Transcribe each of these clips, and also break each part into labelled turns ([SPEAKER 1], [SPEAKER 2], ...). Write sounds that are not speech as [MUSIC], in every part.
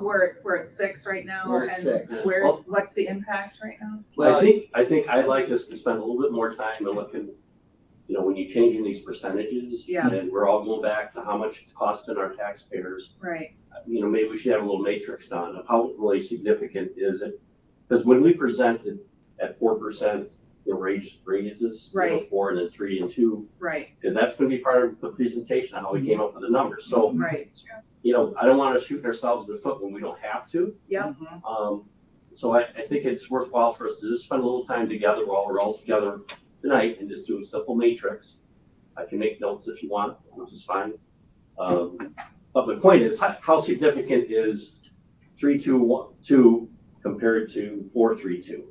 [SPEAKER 1] We're, we're at six right now.
[SPEAKER 2] We're at
[SPEAKER 1] and
[SPEAKER 2] six.
[SPEAKER 1] Where's, what's the impact right now?
[SPEAKER 3] I think, I think I'd like us to spend a little bit more time and looking, you know, when you're changing these percentages.
[SPEAKER 1] Yeah.
[SPEAKER 3] And we're all going back to how much it's costing our taxpayers.
[SPEAKER 1] Right,
[SPEAKER 3] You know, maybe we should have a little matrix done of how really significant is it? Because when we presented at four percent, the raise, raises, you know,
[SPEAKER 1] Right.
[SPEAKER 3] four and then three and two,
[SPEAKER 1] right,
[SPEAKER 3] and that's gonna be part of the presentation, how we came up with the numbers. So,
[SPEAKER 1] right.
[SPEAKER 3] you know, I don't wanna shoot ourselves in the foot when we don't have to.
[SPEAKER 1] Yep,
[SPEAKER 3] Um, so I, I think it's worthwhile for us to just spend a little time together while we're all together tonight and just do a simple matrix. I can make notes if you want, which is fine. Um, but the point is, how, how significant is three, two, one, two compared to four, three, two?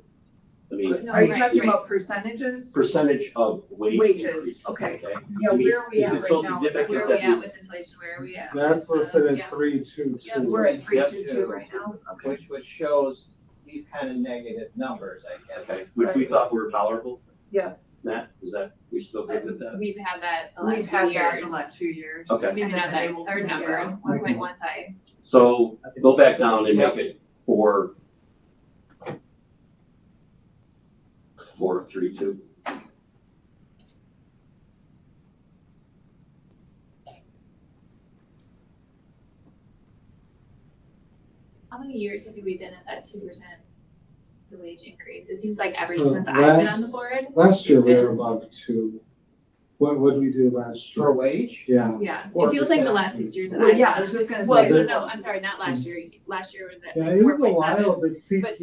[SPEAKER 3] I mean,
[SPEAKER 1] are you
[SPEAKER 4] right,
[SPEAKER 1] talking
[SPEAKER 4] right.
[SPEAKER 1] about percentages?
[SPEAKER 3] percentage of wage
[SPEAKER 1] Wages,
[SPEAKER 3] increase.
[SPEAKER 1] okay.
[SPEAKER 4] Yeah,
[SPEAKER 3] I mean,
[SPEAKER 4] where are we
[SPEAKER 3] is
[SPEAKER 4] at
[SPEAKER 3] it
[SPEAKER 4] right
[SPEAKER 3] so
[SPEAKER 4] now?
[SPEAKER 3] significant
[SPEAKER 4] Where are we
[SPEAKER 3] that we-
[SPEAKER 4] at with inflation? Where are we at?
[SPEAKER 5] That's
[SPEAKER 4] with, uh,
[SPEAKER 5] listed
[SPEAKER 4] yeah.
[SPEAKER 5] at three, two,
[SPEAKER 4] Yeah, we're
[SPEAKER 5] two.
[SPEAKER 4] at three
[SPEAKER 3] Yep.
[SPEAKER 4] two two right now.
[SPEAKER 2] Which, which shows these kind of negative numbers, I guess.
[SPEAKER 3] Okay, which we thought were tolerable,
[SPEAKER 1] Yes.
[SPEAKER 3] Matt, is that, we still good with that?
[SPEAKER 4] We've had that the
[SPEAKER 1] We've
[SPEAKER 4] last
[SPEAKER 1] had
[SPEAKER 4] few
[SPEAKER 1] that in the
[SPEAKER 4] years.
[SPEAKER 1] last few years.
[SPEAKER 3] Okay.
[SPEAKER 4] We've been
[SPEAKER 1] And
[SPEAKER 4] at
[SPEAKER 1] then
[SPEAKER 4] that
[SPEAKER 1] able to
[SPEAKER 4] third
[SPEAKER 1] get
[SPEAKER 4] number,
[SPEAKER 1] out.
[SPEAKER 4] one point one side.
[SPEAKER 3] So go back down and make it four. Four, three, two.
[SPEAKER 4] How many years have we been at that two percent? The wage increase? It seems like ever
[SPEAKER 5] The
[SPEAKER 4] since I've been on the
[SPEAKER 5] last-
[SPEAKER 4] board.
[SPEAKER 5] Last year we
[SPEAKER 4] It's
[SPEAKER 5] were above two. What, what did we do last
[SPEAKER 2] For
[SPEAKER 5] year?
[SPEAKER 2] wage?
[SPEAKER 5] Yeah,
[SPEAKER 4] Yeah, it
[SPEAKER 2] Or
[SPEAKER 4] feels like the
[SPEAKER 2] percent.
[SPEAKER 4] last six years that
[SPEAKER 1] Well,
[SPEAKER 4] I've been
[SPEAKER 1] yeah, I
[SPEAKER 4] on.
[SPEAKER 1] was just gonna
[SPEAKER 4] Well,
[SPEAKER 1] say.
[SPEAKER 4] no,
[SPEAKER 5] this-
[SPEAKER 4] no, I'm sorry, not last year. Last year was at
[SPEAKER 5] yeah,
[SPEAKER 4] like
[SPEAKER 5] it
[SPEAKER 4] four
[SPEAKER 5] was a
[SPEAKER 4] point
[SPEAKER 5] while,
[SPEAKER 4] seven.
[SPEAKER 5] but
[SPEAKER 4] But the
[SPEAKER 5] CPI was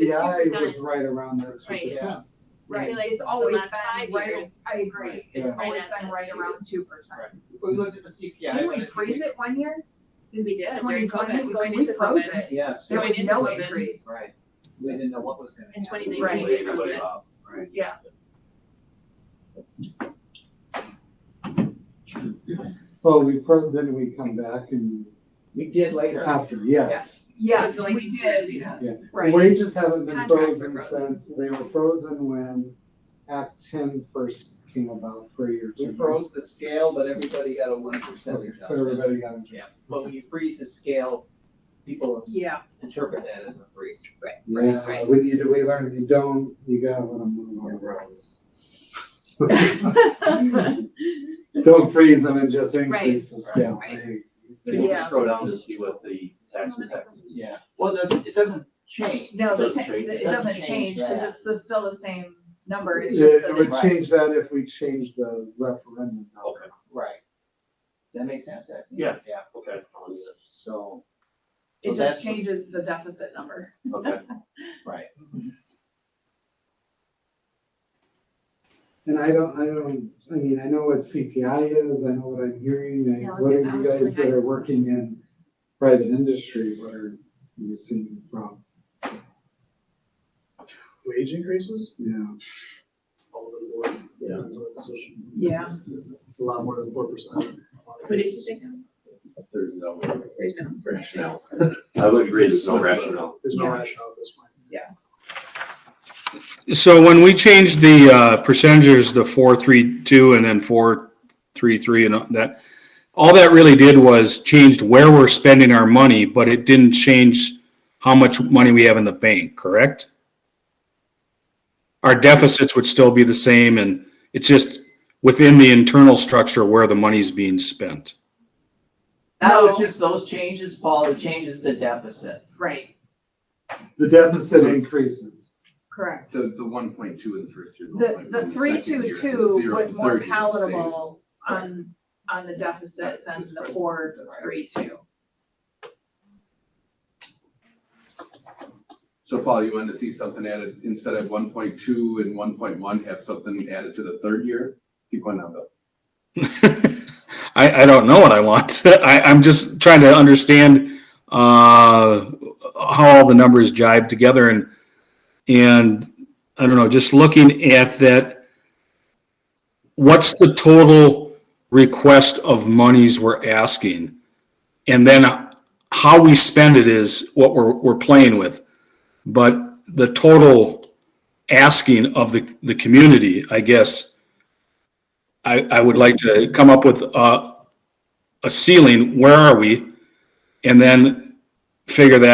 [SPEAKER 4] 2%
[SPEAKER 5] right around there, two
[SPEAKER 4] Right. I
[SPEAKER 5] percent.
[SPEAKER 4] feel
[SPEAKER 1] Right,
[SPEAKER 4] like
[SPEAKER 1] it's
[SPEAKER 4] the
[SPEAKER 1] always
[SPEAKER 4] last
[SPEAKER 1] been
[SPEAKER 4] five
[SPEAKER 1] right,
[SPEAKER 4] years.
[SPEAKER 1] I agree,
[SPEAKER 4] Yeah.
[SPEAKER 1] it's
[SPEAKER 4] Right
[SPEAKER 1] always
[SPEAKER 4] at
[SPEAKER 1] been
[SPEAKER 4] that
[SPEAKER 1] right
[SPEAKER 4] two.
[SPEAKER 1] around two percent.
[SPEAKER 2] We looked at the CPI.
[SPEAKER 1] Didn't we freeze it one year?
[SPEAKER 4] We did during
[SPEAKER 1] 2020,
[SPEAKER 4] COVID. We went
[SPEAKER 1] we
[SPEAKER 4] into
[SPEAKER 1] froze
[SPEAKER 4] COVID.
[SPEAKER 1] it.
[SPEAKER 2] Yes,
[SPEAKER 1] There
[SPEAKER 4] Going
[SPEAKER 1] was
[SPEAKER 4] into
[SPEAKER 1] no
[SPEAKER 4] COVID.
[SPEAKER 1] increase.
[SPEAKER 2] right. We didn't know what was gonna
[SPEAKER 4] In
[SPEAKER 2] happen.
[SPEAKER 4] 2019.
[SPEAKER 1] Right.
[SPEAKER 3] Lay everybody off.
[SPEAKER 1] Yeah.
[SPEAKER 5] Well, we, fir- then we come back and
[SPEAKER 2] We did later.
[SPEAKER 5] after, yes.
[SPEAKER 1] Yes,
[SPEAKER 4] But going
[SPEAKER 1] we
[SPEAKER 4] into-
[SPEAKER 1] did,
[SPEAKER 2] Yes.
[SPEAKER 5] Yeah.
[SPEAKER 1] right,
[SPEAKER 5] Wages haven't been
[SPEAKER 4] Contracts were
[SPEAKER 5] frozen
[SPEAKER 4] frozen.
[SPEAKER 5] since, they were frozen when Act ten first came about for a year or
[SPEAKER 2] We
[SPEAKER 5] two.
[SPEAKER 2] froze the scale, but everybody got a one percent
[SPEAKER 5] Okay, So
[SPEAKER 2] adjustment.
[SPEAKER 5] everybody got
[SPEAKER 2] Yeah,
[SPEAKER 5] adjusted.
[SPEAKER 2] but when you freeze the scale, people
[SPEAKER 1] yeah.
[SPEAKER 2] interpret that as a freeze.
[SPEAKER 5] Yeah,
[SPEAKER 4] right.
[SPEAKER 5] we need to, we learn, you don't, you gotta let them move on.
[SPEAKER 4] [LAUGHS]
[SPEAKER 5] [LAUGHS] Don't freeze them and just increase the scale.
[SPEAKER 4] Right, right.
[SPEAKER 5] They- they-
[SPEAKER 3] Can you just
[SPEAKER 1] Yeah.
[SPEAKER 3] scroll down to see what the tax impact is?
[SPEAKER 2] Yeah, well, it doesn't, it doesn't change.
[SPEAKER 1] No, the
[SPEAKER 3] Doesn't
[SPEAKER 1] ta-
[SPEAKER 3] change.
[SPEAKER 1] the- it
[SPEAKER 2] Doesn't
[SPEAKER 1] doesn't
[SPEAKER 2] change
[SPEAKER 1] change, because
[SPEAKER 2] that.
[SPEAKER 1] it's the- still the same number, it's just
[SPEAKER 5] It
[SPEAKER 1] that
[SPEAKER 5] would
[SPEAKER 1] it,
[SPEAKER 2] Right.
[SPEAKER 5] change that if we change the referendum. number.
[SPEAKER 3] Okay,
[SPEAKER 2] Right. That makes sense, I think.
[SPEAKER 3] Yeah.
[SPEAKER 2] Yeah,
[SPEAKER 3] okay,
[SPEAKER 2] so,
[SPEAKER 1] it
[SPEAKER 2] So
[SPEAKER 1] just
[SPEAKER 2] that's-
[SPEAKER 1] changes the deficit number.
[SPEAKER 3] okay.
[SPEAKER 2] right.
[SPEAKER 5] And I don't, I don't, I mean, I know what CPI is, I know what I'm hearing, and
[SPEAKER 4] Yeah,
[SPEAKER 5] what are
[SPEAKER 4] that
[SPEAKER 5] you
[SPEAKER 4] was
[SPEAKER 5] guys that
[SPEAKER 4] really
[SPEAKER 5] are working in private industry, what are you seeing from?
[SPEAKER 6] wage increases
[SPEAKER 5] Yeah,
[SPEAKER 6] all over the board.
[SPEAKER 3] Yeah.
[SPEAKER 6] Depends on the solution.
[SPEAKER 1] Yeah.
[SPEAKER 6] A lot more than four percent.
[SPEAKER 7] There's no
[SPEAKER 4] There's no-
[SPEAKER 7] rationale.
[SPEAKER 3] I would agree, there's no rationale.
[SPEAKER 6] There's no
[SPEAKER 1] Yeah.
[SPEAKER 6] rationale at this point.
[SPEAKER 8] So when we changed the uh, percentages to four, three, two, and then four, three, three, and all that, all that really did was changed where we're spending our money, but it didn't change how much money we have in the bank, correct? Our deficits would still be the same, and it's just within the internal structure where the money's being spent.
[SPEAKER 2] Now, it's
[SPEAKER 1] No.
[SPEAKER 2] just those changes, Paul, it changes the deficit.
[SPEAKER 1] Right,
[SPEAKER 5] the deficit increases.
[SPEAKER 1] correct.
[SPEAKER 7] The, the one point two in the first year.
[SPEAKER 1] The, the
[SPEAKER 7] 1.1
[SPEAKER 1] three,
[SPEAKER 7] second
[SPEAKER 1] two,
[SPEAKER 7] year,
[SPEAKER 1] two
[SPEAKER 7] zero
[SPEAKER 1] was
[SPEAKER 7] in
[SPEAKER 1] more
[SPEAKER 7] third year stays.
[SPEAKER 1] palatable on, on the deficit than
[SPEAKER 7] That's
[SPEAKER 1] the
[SPEAKER 7] right.
[SPEAKER 1] four,
[SPEAKER 7] That's
[SPEAKER 1] three,
[SPEAKER 7] right.
[SPEAKER 1] two.
[SPEAKER 7] So Paul, you wanted to see something added, instead of one point two and one point one, have something added to the third year? Keep going down, Bill.
[SPEAKER 8] [LAUGHS] I, I don't know what I want. [LAUGHS] I, I'm just trying to understand uh, how all the numbers jibe together and and I don't know, just looking at that, what's the total request of monies we're asking? And then how we spend it is what we're, we're playing with. But the total asking of the, the community, I guess, I, I would like to come up with a, a ceiling, where are we? And then figure that